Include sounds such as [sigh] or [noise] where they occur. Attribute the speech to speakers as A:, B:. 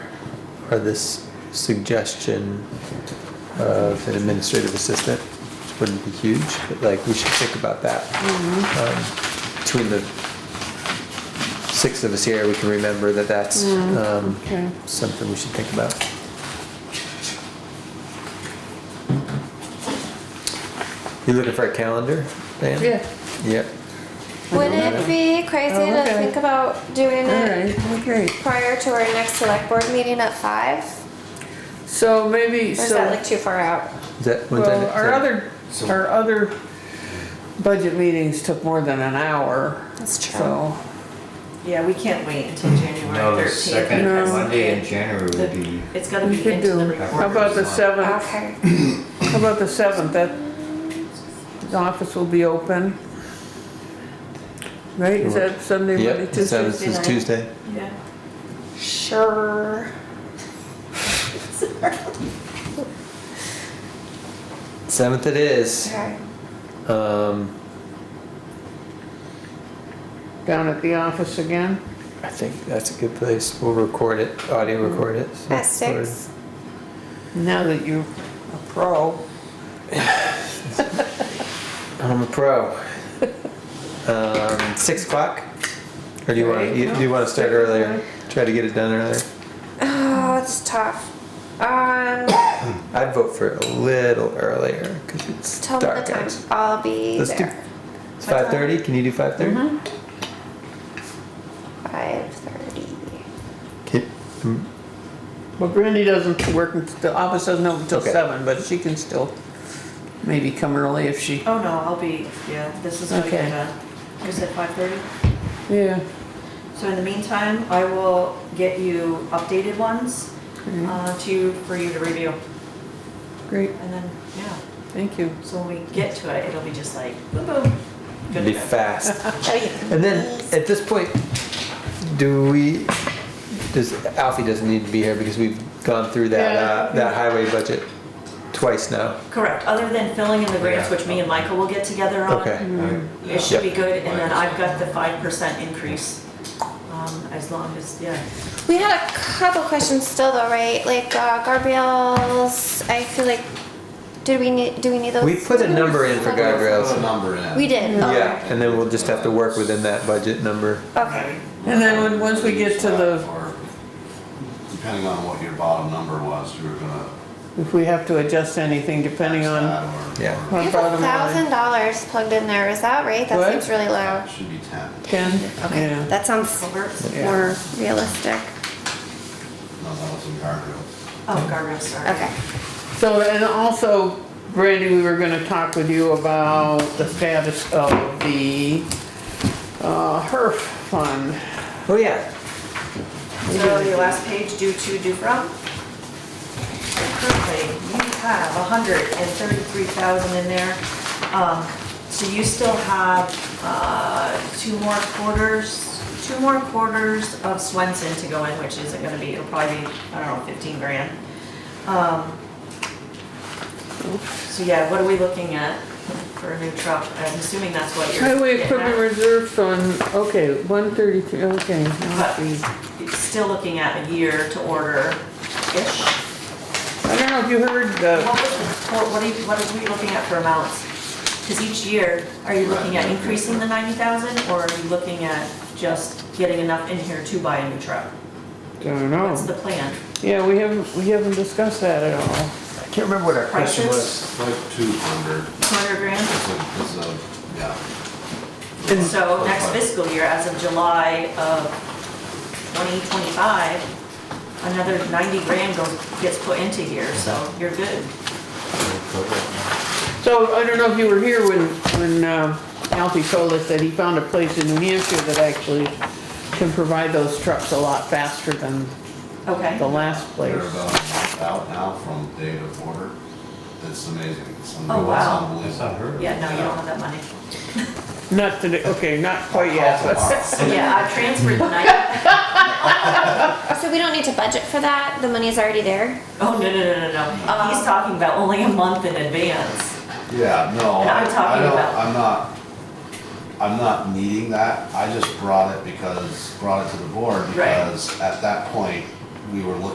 A: or this suggestion of an administrative assistant, which wouldn't be huge, but like, we should think about that.
B: Mm-hmm.
A: Um, Between the six of us here, we can remember that that's um,
B: okay.
A: something we should think about. You looking for a calendar, Dan?
B: Yeah,
A: Yep.
C: Would it be crazy
B: Oh,
C: to
B: okay.
C: think about doing
B: all
C: it
B: right, okay.
C: prior to our next select board meeting at five?
B: So maybe,
C: Or is that
B: so,
C: like too far out?
A: Is that, when's that
B: well,
A: next
B: our
A: time?
B: other, our other budget meetings took more than an hour.
C: That's true.
B: So,
D: Yeah, we can't wait until
E: No,
D: January
E: the
D: thirteenth.
E: second
B: No.
E: Monday in January would be,
D: It's gonna
B: We
D: be
B: could
D: into the
B: do- how
D: report.
B: about the seventh,
C: Okay.
B: how about the seventh, that, the office will be open. Right, is that Sunday, Monday,
A: Yep,
B: Tuesday?
A: seventh is
D: night.
A: Tuesday.
D: Yeah.
C: Sure.
A: Seventh it is.
C: Okay.
A: Um,
B: Down at the office again?
A: I think that's a good place. We'll record it, audio record it. so
C: At
A: it's recorded.
C: six?
B: Now that you're a pro,
A: I'm a
C: [laughs]
A: pro. Um, six o'clock? Or do you wanna, you- do you wanna start earlier? Try to get it done earlier?
C: Oh, it's tough. Um,
A: I'd vote for it a little earlier, cause it's
C: tell me the
A: dark
C: time.
A: out.
C: I'll be
A: Let's do,
C: there.
A: it's five thirty? Can you do five thirty?
C: Mm-hmm. Five thirty.
A: Can, mm,
B: well, Brandy doesn't work, in- the office doesn't open until
A: Okay.
B: seven, but she can still maybe come early if she,
D: Oh, no, I'll be, yeah, this is gonna
B: Okay.
D: get done. Is it five thirty?
B: yeah.
D: So in the meantime, I will get you updated ones,
B: Mm-hmm.
D: uh, to, you- for you to review.
B: Great,
D: And then, yeah,
B: thank you.
D: so when we get to it, it'll be just like, boom, boom. Good
A: be
D: to go.
A: fast.
C: Oh,
A: And then, at this point, do we, does, Alfie doesn't need to be here because we've gone through that, uh, that highway budget twice now.
D: Correct, other than filling in the grants,
E: Yeah.
D: which me and Michael will get together on.
A: Okay.
E: I-
D: It should be
A: Yep.
D: good, and then I've got the five percent increase, um, as long as, yeah.
C: We had a couple questions still though, right? Like uh, guardrails. I feel like, did we need? Do we need those?
A: We put a number in for
E: Put a
A: guardrails.
E: number in.
C: We did. Oh,
A: Yeah, and then we'll just have to work within that budget number.
C: Okay.
B: And then when, once we get to the,
F: Or Depending on what your bottom number was, you were gonna.
B: if we have to adjust anything depending on,
F: that or-
A: Yeah.
F: or-
C: We
B: on
C: have uh, a
B: bottom
C: thousand
B: line.
C: dollars plugged in there. Is that right? That
B: What?
C: seems really low.
F: It Should be ten,
B: Ken, yeah,
C: That sounds
D: Culverts?
B: Yeah.
C: more realistic.
F: no, that was in guardrails.
D: Oh, guardrails, sorry.
C: Okay.
B: so, and also, Brandy, we were gonna talk with you about the status of the, uh, HERF fund.
A: Oh, yeah.
D: So your last page, due to, due from. Currently, you have hundred and thirty-three thousand in there. Um, So you still have uh, two more quarters, two more quarters of Swenson to go in, which isn't gonna be, it'll probably be, I don't know, fifteen grand. Um, So yeah, what are we looking at for a new truck? I'm assuming that's what you're.
B: Highway
D: getting
B: equipment
D: at.
B: reserve fund, okay, one thirty-three, okay,
D: But
B: let's see.
D: it's still looking at a year to order-ish.
B: I don't know if you heard the,
D: What was the, what what are you, what are we looking at for amounts? Because each year, are you looking at increasing the ninety thousand, or are you looking at just getting enough in here to buy a new truck?
B: I don't
D: What's
B: know,
D: the plan?
B: yeah, we haven't, we haven't discussed that at all.
A: I can't remember what our question was.
D: Prices?
F: It's like two hundred,
D: Two hundred grand?
F: it's a, it's a, yeah.
D: And so next
F: Like,
D: fiscal year, as of July of twenty twenty-five, another ninety grand goes, gets put into here, so you're good.
B: So I don't know if you were here when, when um, Alfie told us that he found a place in New Hampshire that actually can provide those trucks a lot faster than
D: Okay.
B: the last place.
F: They're about out now from date of order, it's amazing. It's un-
D: Oh,
F: it's
D: wow.
E: That's
F: unbelievable.
E: not her.
D: Yeah, no, you don't have that money.
B: Not today, okay, not quite yet, but
D: So [laughs] yeah, I've transferred the ninety.
C: So we don't need to budget for that. The money's already there.
D: Oh, no, no, no, no, no. He's talking about only a month in advance.
F: Yeah, no,
D: And
F: I
D: I'm
F: I
D: talking
F: don't,
D: about-
F: I'm not, I'm not needing that, I just brought it because, brought it to the board
D: Right.
F: because at that point, we were looking